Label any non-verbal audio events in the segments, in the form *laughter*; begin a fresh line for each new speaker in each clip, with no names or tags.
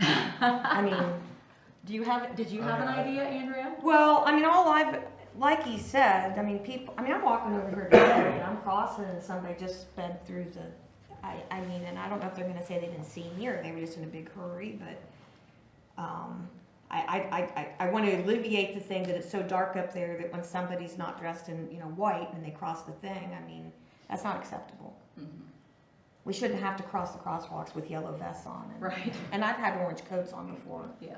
I mean,
Do you have, did you have an idea, Andrea?
well, I mean, all I've, like he said, I mean, people, I mean, I'm walking over here today and I'm crossing and somebody just sped through the, I, I mean, and I don't know if they're gonna say they didn't see me or they were just in a big hurry, but, um, I, I, I, I, I wanna alleviate the thing that it's so dark up there that when somebody's not dressed in, you know, white and they cross the thing, I mean, that's not acceptable. We shouldn't have to cross the crosswalks with yellow vests on and,
Right,
and I've had orange coats on before.
yeah.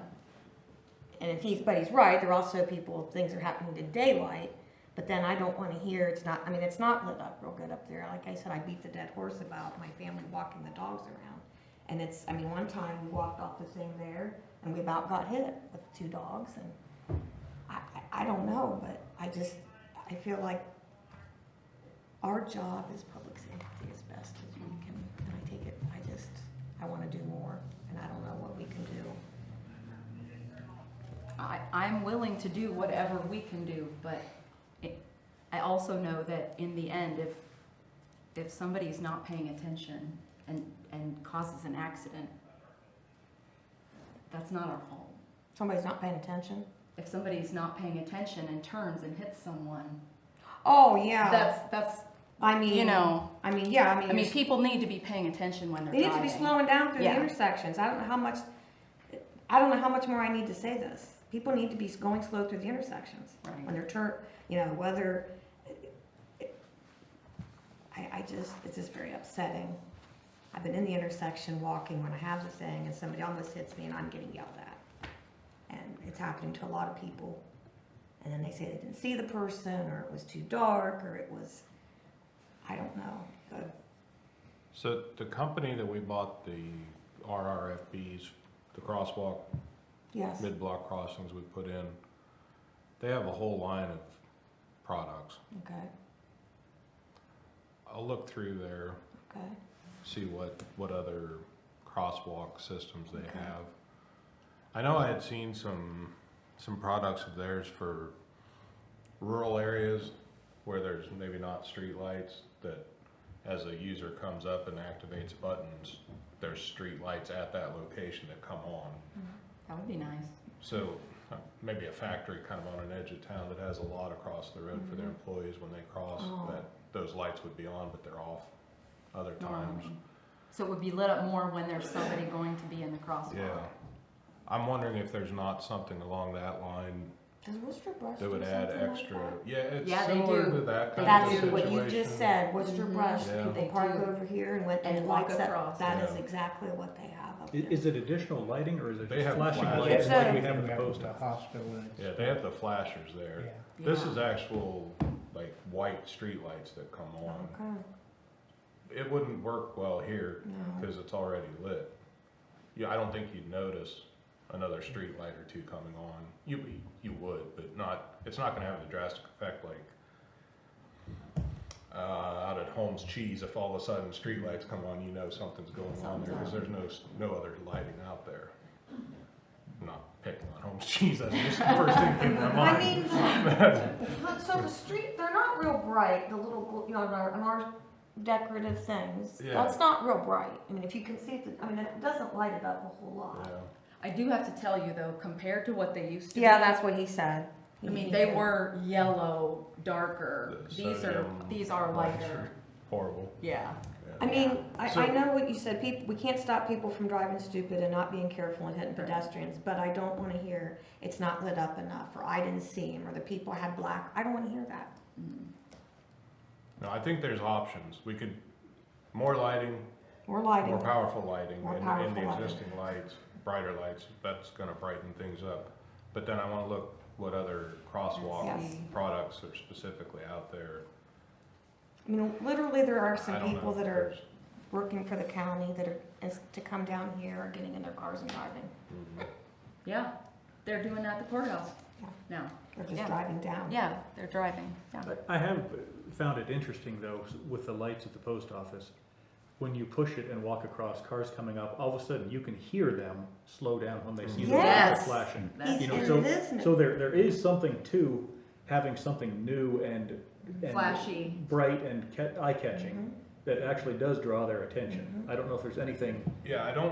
And if he's, but he's right, there are also people, things are happening in daylight, but then I don't wanna hear, it's not, I mean, it's not lit up real good up there. Like I said, I beat the dead horse about my family walking the dogs around. And it's, I mean, one time we walked off the thing there and we about got hit with two dogs and I, I, I don't know, but I just, I feel like our job as public safety as best as we can, and I take it, I just, I wanna do more and I don't know what we can do.
I, I'm willing to do whatever we can do, but it, I also know that in the end, if, if somebody's not paying attention and, and causes an accident, that's not our fault.
Somebody's not paying attention?
If somebody's not paying attention and turns and hits someone,
Oh yeah.
that's, that's,
I mean,
you know,
I mean, yeah. I mean,
I mean, people need to be paying attention when they're
they need to
driving.
be slowing down through
Yeah.
the intersections. I don't know how much. I don't know how much more I need to say this. People need to be going slow through the intersections when
Right,
they're turn. You know, whether. I, I just, it's just very upsetting. I've been in the intersection walking when I have the thing, and somebody almost hits me, and I'm getting yelled at. And it's happening to a lot of people. And then they say they didn't see the person, or it was too dark, or it was. I don't know. but-
So the company that we bought the RRFBs, the crosswalk,
Yes,
mid-block crossings we put in, they have a whole line of products.
okay,
I'll look through there,
okay.
see what, what other crosswalk systems they
Okay.
have. I know I had seen some, some products of theirs for rural areas where there's maybe not streetlights that as a user comes up and activates buttons, there's streetlights at that location that come on.
that would be nice.
So uh, maybe a factory kind of on an edge of town that has a lot across the road for their
Mhm.
employees when they cross,
Oh.
that those lights would be on, but they're off other times.
normally. Um, So it would be lit up more when there's somebody going to be in the crosswalk.
Yeah. I'm wondering if there's not something along that line
Does Worcester Brush
that would
do
add
something like
extra,
that?
yeah, it's
Yeah, they
similar
do.
to
They
that kind of
That's
do.
what
situation.
you just said, Worcester
Mhm.
Brush,
Yeah.
people
They
park
do.
over here and went and
And walk
lights up,
across.
that is
Yeah.
exactly what they have up
I-
there.
Is it additional lighting or is it
They have
just flashing
flash-
lights
Yeah.
like we have in the
Back
post
to the
office?
Hospital. and
Yeah, they have the flashers there.
Yeah.
This
Yeah.
is actual, like, white streetlights that come on.
Okay,
It wouldn't work well here
no,
because it's already lit. Yeah, I don't think you'd notice another street light or two coming on. You, you would, but not, it's not gonna have the drastic effect like uh, out at Holmes Cheese, if all of a sudden street lights come on, you know something's going on there because there's no, s- no other lighting out there. I'm Not picking on Holmes Cheese, that's just the first thing that came to my
*laughs* I
mind.
mean,
*laughs*
but so the street, they're not real bright, the little, gl- you know, and our, and our decorative things,
Yeah.
that's not real bright. I mean, if you can see, it, I mean, it doesn't light it up a whole
Yeah.
lot.
I do have to tell you though, compared to what they used to be.
what he said.
I mean, they were yellow, darker.
The
These are,
sodium
these are
lights are
lighter.
Horrible.
Yeah.
I mean, I,
So-
I know what you said, people, we can't stop people from driving stupid and not being careful and hitting
Right.
pedestrians, but I don't wanna hear, it's not lit up enough, or I didn't see him, or the people had black, I don't wanna hear that.
Mm.
No, I think there's options. We could, more lighting,
More
More
lighting,
powerful lighting
More
in, in
powerful
the
lighting.
existing lights, brighter lights, that's gonna brighten things up. But then I wanna look what other crosswalk
Yes.
products are specifically out there.
I mean, literally, there are
I
some
don't
people
know.
that are
There's-
working for the county that are, is to come down here, are getting in their cars and driving,
Mhm.
Yeah. They're doing that at the courthouse
Yeah.
now.
they're just
Yeah.
driving down.
Yeah, they're driving. Yeah.
I I have found it interesting though, s- with the lights at the post office, when you push it and walk across, cars coming up, all of a sudden you can hear them slow down when they see the lights
Yes.
are flashing.
He's,
You
That's-
know,
and
so-
it is,
So
new.
there, there is something to having something new and. and
Flashy.
Bright and ca- eye-catching that actually does draw their attention.
Mhm.
I don't know if there's anything
Yeah, I don't